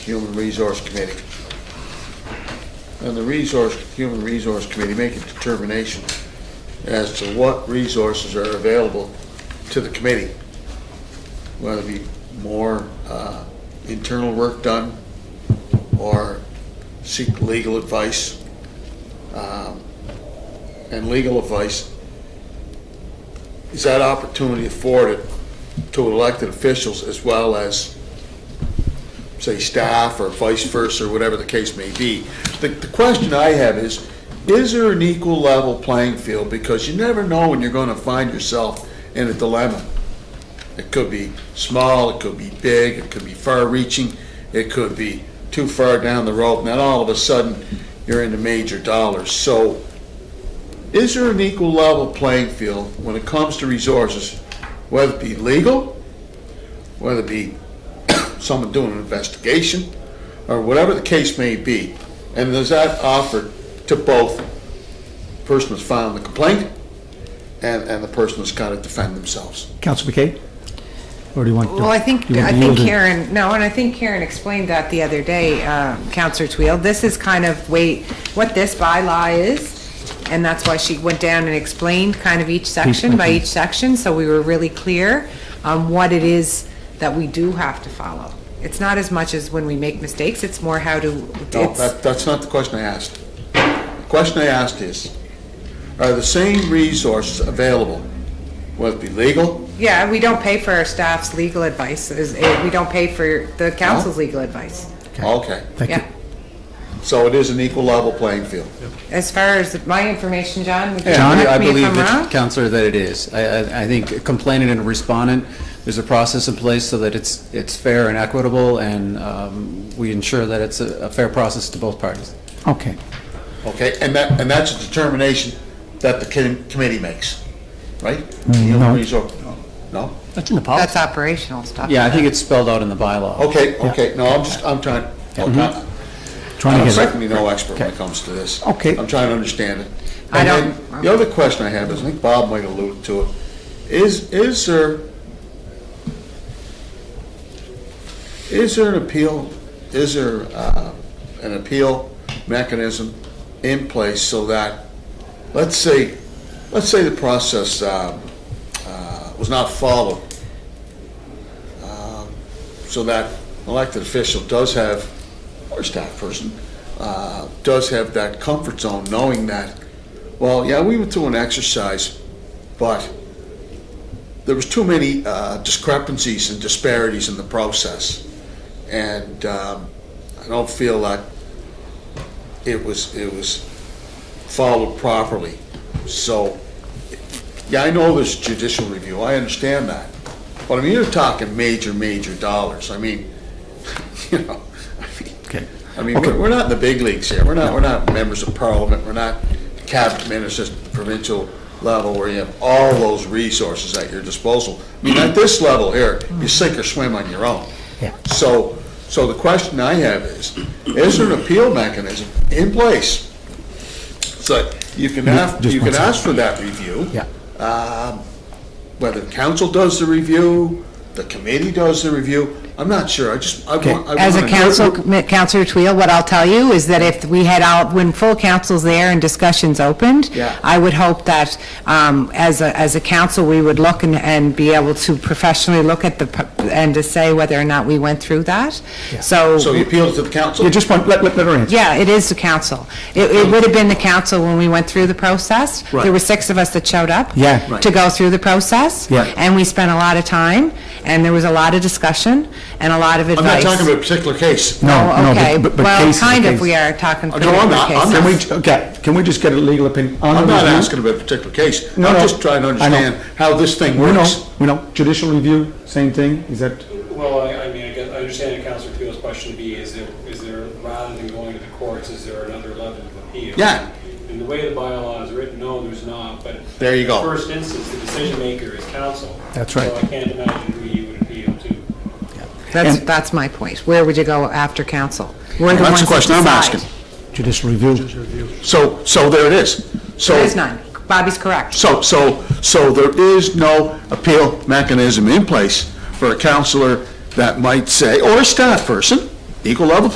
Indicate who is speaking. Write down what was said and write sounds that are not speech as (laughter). Speaker 1: Human Resource Committee. And the Resource, Human Resource Committee make a determination as to what resources are available to the committee. Whether it be more uh, internal work done or seek legal advice. Um, And legal advice is that opportunity afforded to elected officials as well as, say, staff or vice versa, or whatever the case may be. The, the question I have is, is there an equal level playing field? Because you never know when you're gonna find yourself in a dilemma. It could be small, it could be big, it could be far-reaching, it could be too far down the road, and then all of a sudden, you're into major dollars. So, is there an equal level playing field when it comes to resources, whether it be legal, whether it be someone doing an investigation, or whatever the case may be? And is that offered to both the person that's filing the complaint and, and the person that's got to defend themselves?
Speaker 2: Counsel McKay? Or do you want?
Speaker 3: Well, I think,
Speaker 2: do you
Speaker 3: I
Speaker 2: want to
Speaker 3: think
Speaker 2: yield it?
Speaker 3: Karen, no, and I think Karen explained that the other day, um, Counselor Twill. This is kind of, wait, what this bylaw is, and that's why she went down and explained kind of each section by
Speaker 2: section.
Speaker 3: each section, so we were really clear on what it is that we do have to follow. It's not as much as when we make mistakes, it's more how to,
Speaker 1: No,
Speaker 3: it's,
Speaker 1: that, that's not the question I asked. The question I asked is, are the same resources available, whether it be legal,
Speaker 3: yeah, we don't pay for our staff's legal advice, is- eh, we don't pay for the council's legal advice.
Speaker 1: okay.
Speaker 2: Thank you.
Speaker 3: Yeah.
Speaker 1: So it is an equal level playing field.
Speaker 3: As far as my information, John, would you
Speaker 4: John, I
Speaker 3: correct me if
Speaker 4: believe,
Speaker 3: I'm wrong?
Speaker 4: that- Counselor, that it is. I- I I think complainant and respondent, there's a process in place so that it's it's fair and equitable, and um, we ensure that it's a a fair process to both parties.
Speaker 2: Okay.
Speaker 1: Okay, and that, and that's a determination that the com- committee makes, right? The
Speaker 2: no.
Speaker 1: Human Resource, no?
Speaker 2: That's in the
Speaker 1: Oh.
Speaker 3: That's operational stuff.
Speaker 4: Yeah, I think it's spelled out in the bylaw.
Speaker 1: Okay, okay, no, I'm just, I'm trying, okay.
Speaker 2: Trying
Speaker 1: I'm
Speaker 2: to Mm-hmm. get it.
Speaker 1: certainly no expert when it
Speaker 2: Okay.
Speaker 1: comes to this.
Speaker 2: Okay.
Speaker 1: I'm trying to understand it.
Speaker 3: I
Speaker 1: And
Speaker 3: don't-
Speaker 1: then The other question I have is, I think Bob might allude to it, is, is there, is there an appeal, is there, uh, an appeal mechanism in place so that, let's say, let's say the process, um, uh, was not followed? um, So that elected official does have, or staff person, uh, does have that comfort zone, knowing that, well, yeah, we went through an exercise, but there was too many uh, discrepancies and disparities in the process, and um, I don't feel like it was it was followed properly. So, yeah, I know there's judicial review. I understand that, but I mean, you're talking major, major dollars. I mean, (laughs) you know, I mean,
Speaker 2: Okay.
Speaker 1: I mean,
Speaker 2: Okay.
Speaker 1: we're, we're not in the big leagues here. We're not, we're not members of parliament. We're not cabinet ministers, at the provincial level where you have all those resources at your disposal. I mean, at this level here, you sink or swim on your own.
Speaker 2: Yeah.
Speaker 1: So, so the question I have is, is there an appeal mechanism in place? So you can ask,
Speaker 2: Just
Speaker 1: you
Speaker 2: one
Speaker 1: can
Speaker 2: second.
Speaker 1: ask for that review.
Speaker 2: Yeah.
Speaker 1: Whether council does the review, the committee does the review, I'm not sure. I just, I
Speaker 2: Okay.
Speaker 1: want. I
Speaker 3: As a
Speaker 1: wanna-
Speaker 3: council, Councilor Twill, what I'll tell you is that if we had out, when full council's there and discussions opened,
Speaker 1: Yeah.
Speaker 3: I would hope that um, as a, as a council, we would look and, and be able to professionally look at the, pu- and to say whether or not we went through that. So,
Speaker 1: So you appeal to the council?
Speaker 2: Yeah, just one, let, let let her answer.
Speaker 3: yeah, it is the council. It, it would have been the council when we went through the process.
Speaker 2: Right.
Speaker 3: There were six of us that showed up.
Speaker 2: Yeah. Right.
Speaker 3: To go through the process.
Speaker 2: Yeah.
Speaker 3: And we spent a lot of time, and there was a lot of discussion and a lot of
Speaker 1: I'm
Speaker 3: advice.
Speaker 1: not talking about a particular case.
Speaker 2: No,
Speaker 3: Oh,
Speaker 2: no,
Speaker 3: okay.
Speaker 2: but- but, but
Speaker 3: Well,
Speaker 2: case is the
Speaker 3: kind of,
Speaker 2: case.
Speaker 3: we are talking.
Speaker 1: Oh, no, I'm not- I'm
Speaker 3: cases.
Speaker 1: not-
Speaker 2: Can we, j- okay, can we just get a legal opinion on the
Speaker 1: I'm not
Speaker 2: review?
Speaker 1: asking about a particular case. I'm
Speaker 2: No, no.
Speaker 1: just trying to
Speaker 2: I know.
Speaker 1: understand how this thing
Speaker 2: We
Speaker 1: works.
Speaker 2: know, we know. Judicial review, same thing, is that?
Speaker 5: Well, I, I mean, I guess, I understand Counselor Tew's question to be, is there, is there, rather than going to the courts, is there another level of appeal?
Speaker 1: Yeah.
Speaker 5: And the way the bylaw is written, no, there's not, but.
Speaker 1: There you go.
Speaker 5: First instance, the decision maker is council.
Speaker 2: That's right.
Speaker 5: So I can't imagine who you would appeal to.
Speaker 3: That's,
Speaker 2: And-
Speaker 3: that's my point. Where would you go after council? We're the
Speaker 1: That's
Speaker 3: ones
Speaker 1: the
Speaker 3: that
Speaker 1: question I'm
Speaker 3: decide.
Speaker 1: asking.
Speaker 2: Judicial review.
Speaker 1: So, so there it is. So
Speaker 3: There is none. Bobby's correct.
Speaker 1: So, so, so there is no appeal mechanism in place for a counselor that might say, or a staff person, equal level